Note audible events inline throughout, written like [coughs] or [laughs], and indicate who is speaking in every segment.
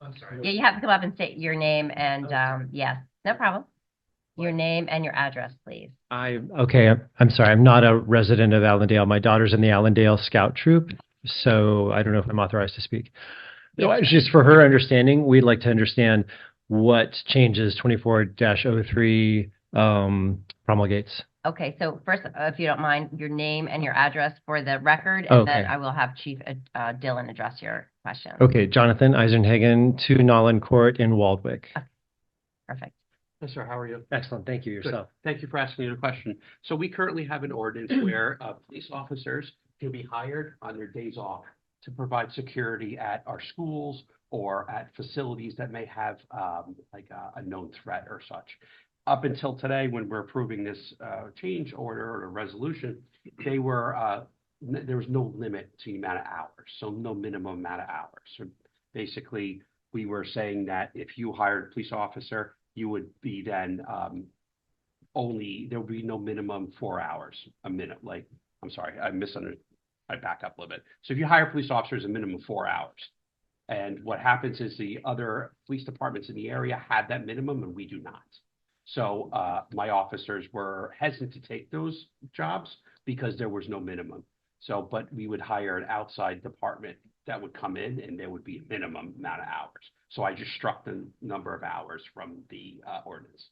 Speaker 1: I'm sorry.
Speaker 2: Yeah, you have to come up and state your name and, um, yes, no problem. Your name and your address, please.
Speaker 3: I, okay, I'm, I'm sorry, I'm not a resident of Allendale. My daughter's in the Allendale Scout Troop, so I don't know if I'm authorized to speak. No, I- just for her understanding, we'd like to understand what changes twenty-four 3 um, promulgates.
Speaker 2: Okay, so first, uh, if you don't mind, your name and your address for the record, and then
Speaker 3: Okay.
Speaker 2: I will have Chief uh, uh, Dillon address your question.
Speaker 3: Okay, Jonathan Eisenhagen, two Nolan Court in Waldwick.
Speaker 2: Perfect.
Speaker 1: Mister, how are you?
Speaker 3: Excellent, thank you yourself.
Speaker 1: Thank you for asking the question. So we currently have an ordinance where uh, police officers can be hired on their days off to provide security at our schools or at facilities that may have um, like a, a known threat or such. Up until today, when we're approving this uh, change order or resolution, they were, uh, n- there was no limit to the amount of hours, so no minimum amount of hours. So basically, we were saying that if you hired a police officer, you would be then um, only, there would be no minimum four hours, a minute, like, I'm sorry, I misunderstood. I back up a little bit. So if you hire police officers, a minimum of four hours. And what happens is the other police departments in the area have that minimum and we do not. So uh, my officers were hesitant to take those jobs because there was no minimum. So, but we would hire an outside department that would come in and there would be a minimum amount of hours. So I just struck the number of hours from the uh, ordinance.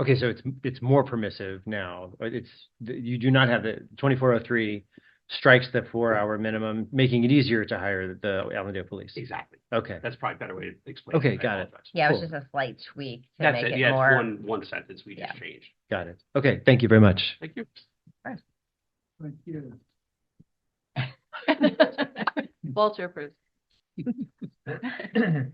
Speaker 3: Okay, so it's, it's more permissive now. but It's, you do not have the twenty-four oh three strikes the four-hour minimum, making it easier to hire the Allendale Police.
Speaker 1: Exactly.
Speaker 3: Okay.
Speaker 1: That's probably a better way to explain.
Speaker 3: Okay,
Speaker 1: I
Speaker 3: got it.
Speaker 1: apologize.
Speaker 2: Yeah, it was
Speaker 3: Cool.
Speaker 2: just a slight tweak to
Speaker 1: That's
Speaker 2: make
Speaker 1: it.
Speaker 2: it
Speaker 1: Yeah, it's
Speaker 2: more,
Speaker 1: one, one sentence we just changed.
Speaker 3: Got it. Okay, thank you very much.
Speaker 1: Thank you.
Speaker 4: Thank you.
Speaker 2: [laughs]
Speaker 5: Walter approves.
Speaker 2: [coughs]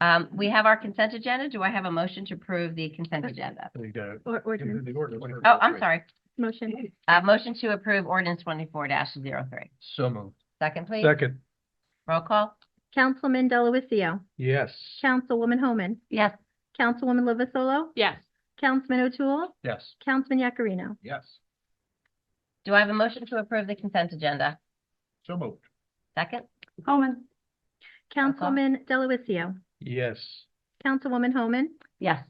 Speaker 2: um, we have our consent agenda. Do I have a motion to approve the consent agenda?
Speaker 4: There you go.
Speaker 5: Or, or,
Speaker 4: Into the order.
Speaker 2: Oh, I'm sorry.
Speaker 5: motion,
Speaker 2: Uh, motion to approve ordinance twenty-four 3 Second,
Speaker 4: So moved.
Speaker 2: please.
Speaker 4: Second,
Speaker 2: Roll call.
Speaker 6: Councilman Delawitzio,
Speaker 4: yes.
Speaker 6: Councilwoman Homan,
Speaker 2: Yes.
Speaker 6: Councilwoman Lovasolo,
Speaker 5: yes,
Speaker 6: Councilman O'Toole,
Speaker 4: Yes.
Speaker 6: Councilman Yakarino.
Speaker 4: Yes.
Speaker 2: Do I have a motion to approve the consent agenda?
Speaker 4: So moved.
Speaker 2: Second?
Speaker 5: Homan,
Speaker 6: Councilman Delawitzio,
Speaker 4: Yes.
Speaker 6: Councilwoman Homan,
Speaker 2: Yes.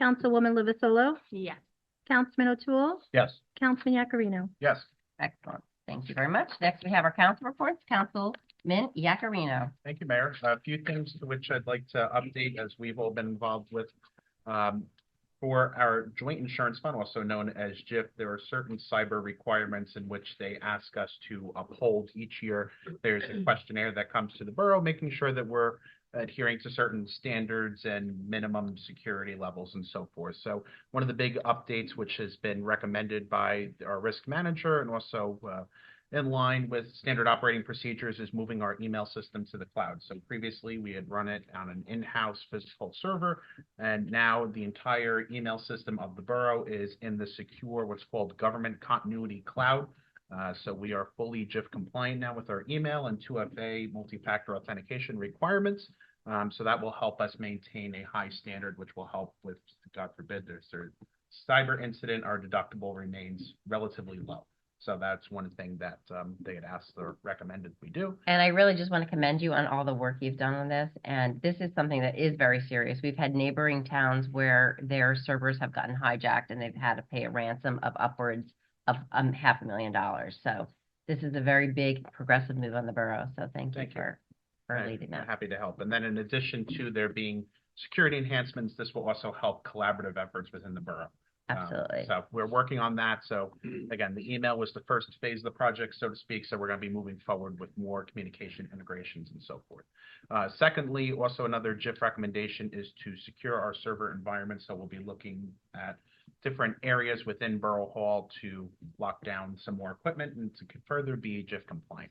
Speaker 6: Councilwoman Lovasolo,
Speaker 5: yes.
Speaker 6: Councilman O'Toole,
Speaker 4: Yes.
Speaker 6: Councilman Yakarino.
Speaker 4: Yes.
Speaker 2: Excellent. Thank you very much. Next, we have our council reports. Councilman Yakarino.
Speaker 7: Thank you, Mayor. A few things to which I'd like to update as we've all been involved with. Um, For our joint insurance fund, also known as JIF, there are certain cyber requirements in which they ask us to uphold each year. There's a questionnaire that comes to the borough, making sure that we're adhering to certain standards and minimum security levels and so forth. So one of the big updates, which has been recommended by our risk manager and also uh, in line with standard operating procedures is moving our email system to the cloud. So previously, we had run it on an in-house physical server, and now the entire email system of the borough is in the secure, what's called Government Continuity Cloud. Uh, So we are fully JIF compliant now with our email and 2FA multi-factor authentication requirements. Um, So that will help us maintain a high standard, which will help with, God forbid, there's a cyber incident, our deductible remains relatively low. So that's one thing that um, they had asked or recommended we do.
Speaker 2: And I really just want to commend you on all the work you've done on this. And this is something that is very serious. We've had neighboring towns where their servers have gotten hijacked and they've had to pay a ransom of upwards of um, half a million dollars. So this is a very big progressive move on the borough. So thank you
Speaker 7: Thank you. Uh,
Speaker 2: for, for
Speaker 7: I'm
Speaker 2: leading that.
Speaker 7: Happy to help. And then in addition to there being security enhancements, this will also help collaborative efforts within the borough. Um,
Speaker 2: Absolutely.
Speaker 7: So we're working on that. So again, the email was the first phase of the project, so to speak. So we're going to be moving forward with more communication integrations and so forth. Uh, Secondly, also another JIF recommendation is to secure our server environment. So we'll be looking at different areas within Borough Hall to lock down some more equipment and to further be JIF compliant.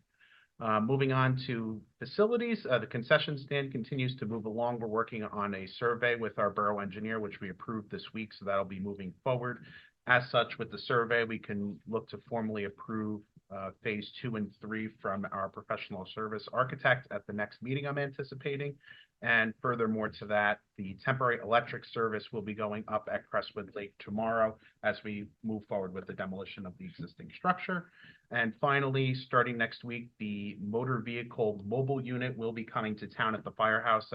Speaker 7: Uh, moving on to facilities, uh, the concession stand continues to move along. We're working on a survey with our borough engineer, which we approved this week, so that'll be moving forward. As such, with the survey, we can look to formally approve, uh, phase two and three from our professional service architect at the next meeting I'm anticipating. And furthermore to that, the temporary electric service will be going up at Crestwood Lake tomorrow as we move forward with the demolition of the existing structure. And finally, starting next week, the motor vehicle mobile unit will be coming to town at the firehouse.